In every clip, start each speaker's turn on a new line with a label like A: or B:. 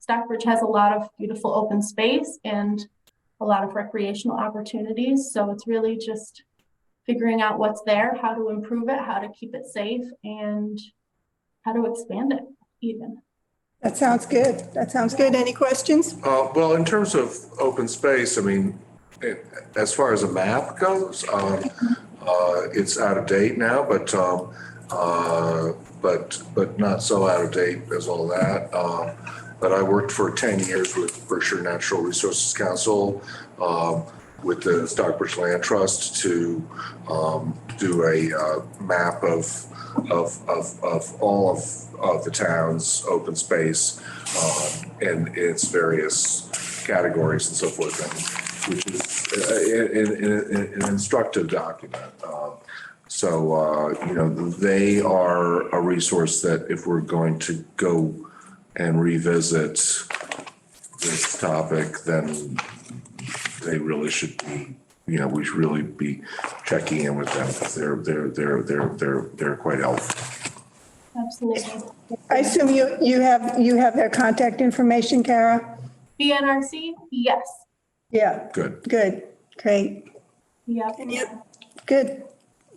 A: Stockbridge has a lot of beautiful open space and a lot of recreational opportunities. So it's really just figuring out what's there, how to improve it, how to keep it safe, and how to expand it even.
B: That sounds good. That sounds good. Any questions?
C: Uh, Well, in terms of open space, I mean, eh, as far as a map goes, um, uh, it's out of date now, but, um, uh, but, but not so out of date as all that. Um, But I worked for 10 years with Berkshire Natural Resources Council, um, with the Stockbridge Land Trust to um, do a uh, map of, of, of, of all of, of the town's open space um, and its various categories and so forth, and which is uh, an- an an- an instructive document. Um, So, uh, you know, they are a resource that if we're going to go and revisit this topic, then they really should be, you know, we should really be checking in with them. They're, they're, they're, they're, they're, they're quite helpful.
A: Absolutely.
B: I assume you, you have, you have their contact information, Kara?
A: BNRC, yes.
B: Yeah,
C: Good.
B: good, great.
A: Yep.
B: Good.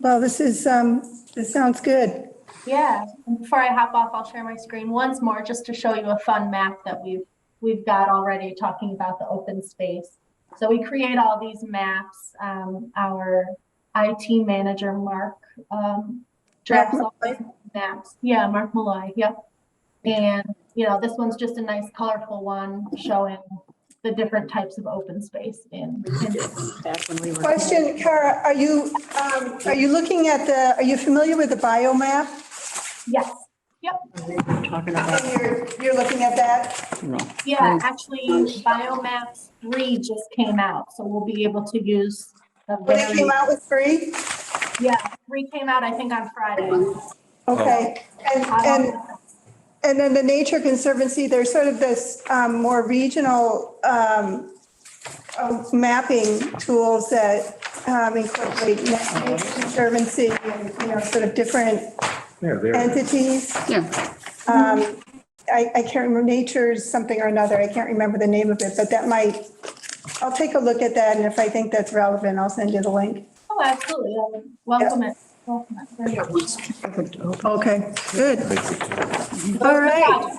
B: Well, this is, um, this sounds good.
A: Yeah, and before I hop off, I'll share my screen once more just to show you a fun map that we've, we've got already talking about the open space. So we create all these maps, um, our IT manager, Mark, um, drafts all these maps. Yeah, Mark Malloy, yep. And, you know, this one's just a nice colorful one showing the different types of open space in. in-
D: back when we were.
B: Question, Kara, are you, um, are you looking at the, are you familiar with the biomap?
A: Yes,
D: when we were Talking about,
B: And you're, you're looking at that?
D: you know,
A: Yeah, actually, Biomaps three just came out, so we'll be able to use. the
B: When it
A: very
B: came out with free?
A: Yeah, three came out, I think, on Friday. Um,
B: Okay. And,
A: Uh-huh.
B: and And then the Nature Conservancy, there's sort of this um, more regional um, uh, mapping tools that um, incorporate Nature Conservancy and, you know, sort of different
C: Yeah, they're,
B: entities.
D: yeah,
B: Um, I, I can't remember, Nature's something or another, I can't remember the name of it, but that might, I'll take a look at that, and if I think that's relevant, I'll send you the link.
A: Oh, absolutely. Um, Welcome it. Welcome it. Very good.
B: Okay, good. All right,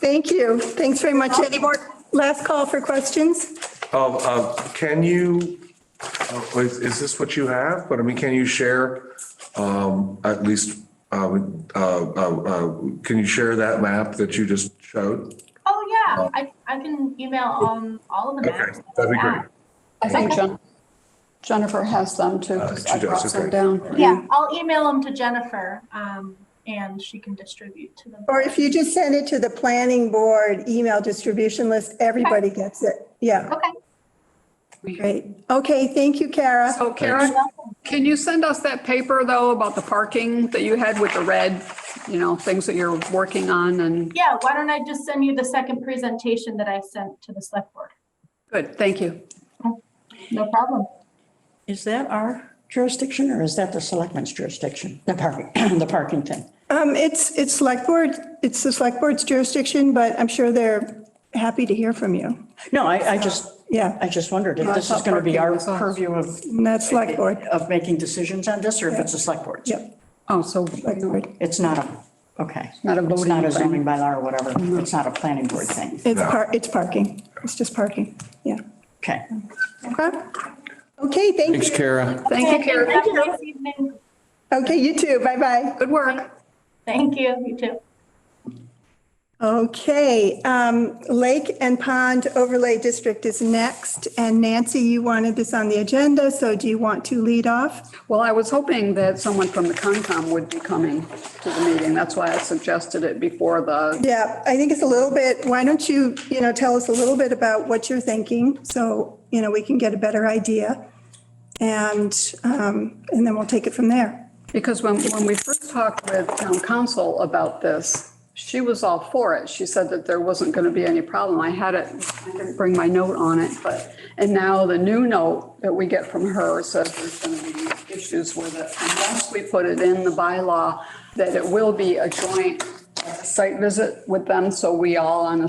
B: thank you. Thanks very much. Any more, last call for questions?
C: um, um, can you, uh, is, is this what you have? But I mean, can you share, um, at least, um, uh, uh, uh, can you share that map that you just showed?
A: Oh, yeah, I, I can email um all of the
C: Okay,
A: maps.
C: that'd be great.
E: I think Jen- Jennifer has them too.
C: Uh,
E: 'cause
C: she
E: I
C: does,
E: brought some
C: okay.
E: down.
A: Yeah, I'll email them to Jennifer, um, and she can distribute to them.
B: Or if you just send it to the planning board email distribution list, everybody gets it. Yeah,
A: Okay.
B: great. Okay, thank you, Kara.
E: So Karen,
A: welcome.
E: can you send us that paper though about the parking that you had with the red, you know, things that you're working on and,
A: Yeah, why don't I just send you the second presentation that I sent to the select board?
E: good, thank you.
A: No problem.
D: is that our jurisdiction or is that the selectmen's jurisdiction? The parking, the parking thing.
B: Um, it's, it's select board, it's the select board's jurisdiction, but I'm sure they're happy to hear from you.
D: No, I, I just,
B: Yeah,
D: I just wondered if
E: I
D: this is
E: thought
D: going to be
E: parking
D: our
E: was us.
D: purview of,
B: and that's select board.
D: of making decisions on this or if it's a select board.
B: Yep,
E: Oh, so,
B: select board.
D: It's not a, okay.
E: Not a
D: It's not
E: voting
D: a
E: thing.
D: zoning bylaw or whatever. It's not a planning board thing.
B: It's par, it's parking. It's just parking. Yeah.
D: Okay.
B: Okay, Okay. thank
F: Thanks,
B: you.
F: Kara.
E: Thank you, Karen.
A: Have a nice evening.
B: Okay, you too. Bye-bye.
E: Good work.
A: Thank you, you too.
B: Okay, um, Lake and Pond Overlay District is next, and Nancy, you wanted this on the agenda, so do you want to lead off?
E: Well, I was hoping that someone from the Concom would be coming to the meeting. That's why I suggested it before the,
B: Yeah, I think it's a little bit, why don't you, you know, tell us a little bit about what you're thinking, so, you know, we can get a better idea, and, um, and then we'll take it from there.
E: because when, when we first talked with town council about this, she was all for it. She said that there wasn't going to be any problem. I had it, I didn't bring my note on it, but, and now the new note that we get from her says there's going to be issues with it unless we put it in the bylaw that it will be a joint uh, site visit with them, so we all on the